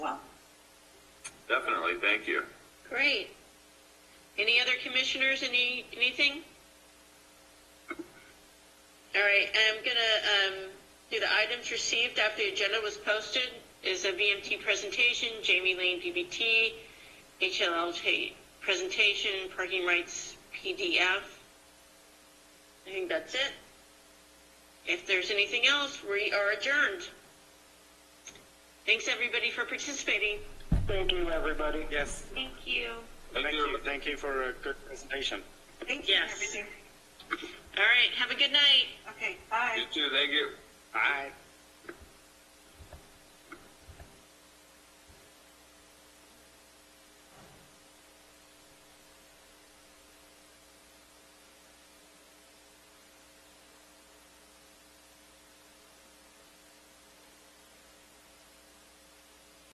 Sally, thank you. Great. Any other commissioners, any, anything? All right, I'm gonna, um, do the items received after the agenda was posted is a VMT presentation, Jamie Lane PBT, HLLJ presentation, parking rights PDF. I think that's it. If there's anything else, we are adjourned. Thanks, everybody, for participating. Thank you, everybody. Yes, Thank you. Thank you. Thank you for a good presentation. Thank you. Yes. All right, have a good night. Okay, bye. You too, thank you. bye.